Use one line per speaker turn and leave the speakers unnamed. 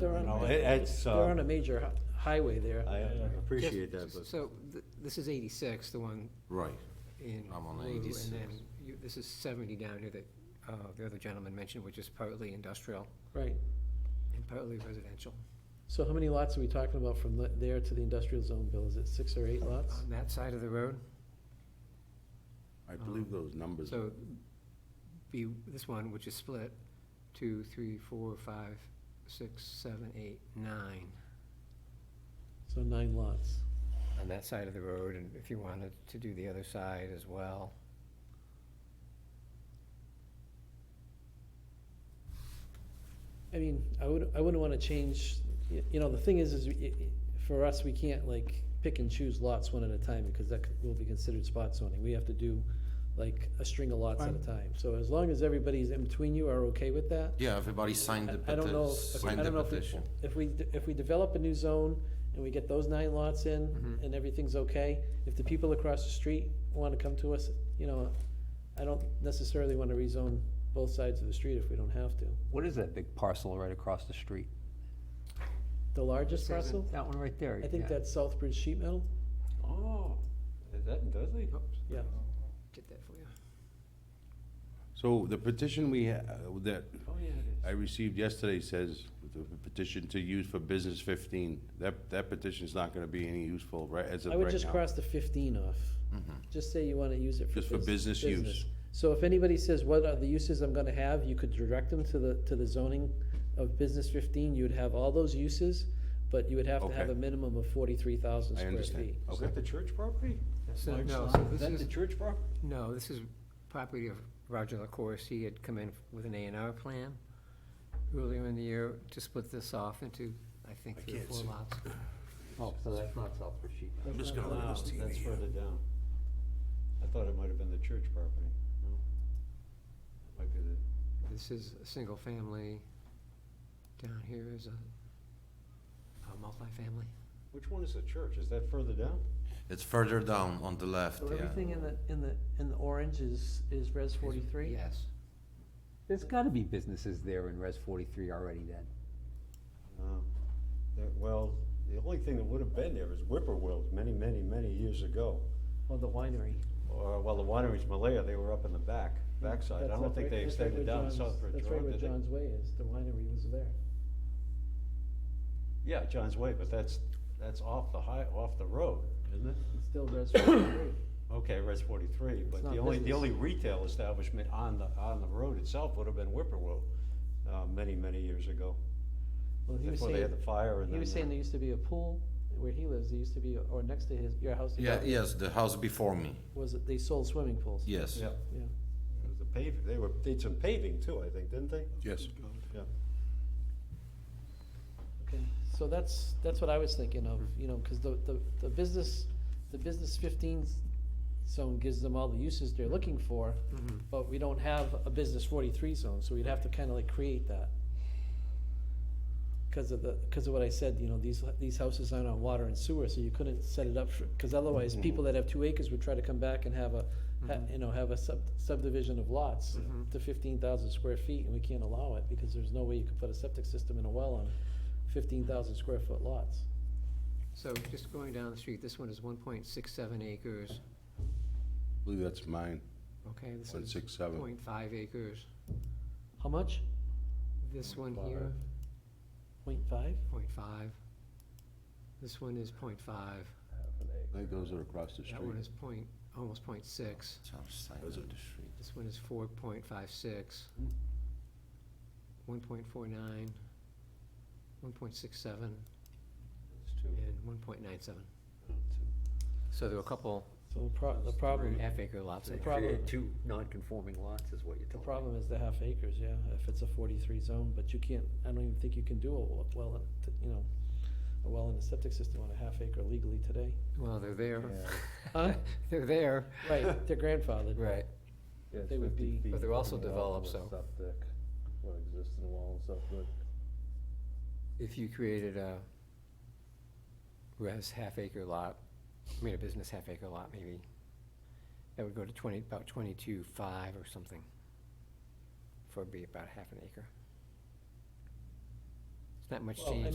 They're on,
No,
a-
it- it's,
they're on
uh,
a major hi- highway there.
I
Jeff,
appreciate that, but
So, th- this is eighty-six, the one
Right.
in
I'm on
blue, and
86.
then you, this is seventy down here that, uh, the other gentleman mentioned, which is partly industrial
Right.
and partly residential.
So how many lots are we talking about from le- there to the industrial zone, Bill? Is it six or eight lots?
On that side of the road,
I believe those numbers.
so be, this one, which is split, two, three, four, five, six, seven, eight, nine,
So nine lots.
on that side of the road, and if you wanted to do the other side as well.
I mean, I would, I wouldn't wanna change, y- you know, the thing is, is we- i- i- for us, we can't like pick and choose lots one at a time because that c- will be considered spot zoning. We have to do like a string of lots at a time. So as long as everybody's in between you are okay with that,
Yeah, everybody signed the
I I don't know,
petition,
if- I
signed the
don't know if, we-
petition.
if we, d- if we develop a new zone and we get those nine lots in
Mm-hmm.
and everything's okay, if the people across the street wanna come to us, you know, I don't necessarily wanna rezone both sides of the street if we don't have to.
What is that big parcel right across the street?
The largest
This
parcel?
isn't-
That one right there?
I think
yeah.
that's Southbridge Sheet Metal,
Oh, is that in Dudley?
yeah.
Get that for you.
So the petition we, ha- uh, that
Oh, yeah, it is.
I received yesterday says the petition to use for business fifteen. That, that petition's not gonna be any useful, right, as of
I
right now. Mm-hmm.
would just cross the fifteen off. Just say you wanna use it for.
Just for
bus-
business use.
So if anybody says, what are the uses I'm gonna have, you could direct them to the, to the zoning of business fifteen, you would have all those uses, but you would have to have
Okay.
a minimum of forty-three thousand
I
square
understand, Oh,
feet.
Is
okay.
that the church property? That
So,
large
no,
lot?
so
Is
this
that the
is-
church property?
No, this is property of Roger LaCourse. He had come in with an A and R plan earlier in the year to split this off into, I think, three or four lots.
Oh, so that's not Southbridge Sheet Metal.
I'm just gonna
No,
look at this
That's
TV.
further down. I thought it might have been the church property, no? That Might be the,
This is a single family. Down here is a, a multifamily.
which one is the church? Is that further down?
It's further down on the left, yeah.
in the, in the, in the orange is, is res
Yes.
There's gotta be businesses there in Res forty-three already then.
No. That- Well, the only thing that would have been there is Whippoorwills many, many, many years ago.
Well, the winery.
Or, well, the wineries Malaya, they were up in the back, backside. I
Mm, That's
don't
up
think
right-
they
that's right where
extended down
John's-
Southbridge
That's right
Road,
where
did they?
John's Way is, the winery was there.
Yeah, John's Way, but that's, that's off the high, off the road, isn't it?
It's still res forty-three.
Okay, Res forty-three, but
not
the only, the
business.
only retail establishment on the, on the road itself would have been Whippoorwill, uh, many, many years ago.
Well, he was
Before they
saying,
had the fire and
he
then.
was saying
uh,
there used to be a pool where he lives, there used to be, or next to his, your house.
Yeah, yes, the house before me,
Was it, they sold swimming pools?
yes.
Yeah,
Yeah.
it was the paving, they were, they did some paving too, I think, didn't they?
Yes.
Yeah.
Okay, so that's, that's what I was thinking of,
Mm-hmm.
you know, because the, the, the business, the business fifteen zone gives them all the uses they're looking for,
Mm-hmm.
but we don't have a business forty-three zone, so we'd have to kind of like create that. Because of the, because of what I said, you know, these, these houses aren't on water and sewer, so you couldn't set it up for, because otherwise, people that have two acres would try to come back and have a, ha- you know, have a sub subdivision of lots to fifteen thousand square feet, and we can't allow it, because there's no way you could put a septic system and a well on fifteen thousand square foot lots.
So just going down the street, this one is one point six seven acres.
I believe that's mine,
Okay, this
one
is
six seven.
point five acres.
How much?
This one here,
Point five?
point five. This one is point five.
I think those are across the
That one
street.
is point, almost point six.
It's on the side of
Those
the
are-
street.
This one is four point five six. One point four nine. One point six seven
It's two.
and one point nine seven. So there were a couple
So the pro- the problem,
half acre lots
The
in there.
prob- problem-
Created Two non-conforming lots is what you're
the
telling me.
problem is the half acres, yeah, if it's a forty-three zone, but you can't, I don't even think you can do a wa- well, t- you know, a well and a septic system on a half acre legally today.
Well, they're there.
Huh?
They're there.
Right, they're grandfathered.
Right.
They would be,
But they're also developed, so. If you created a res half acre lot, I mean a business half acre lot maybe, that would go to twenty, about twenty-two five or something. For it'd be about half an acre. not much
Well,
change.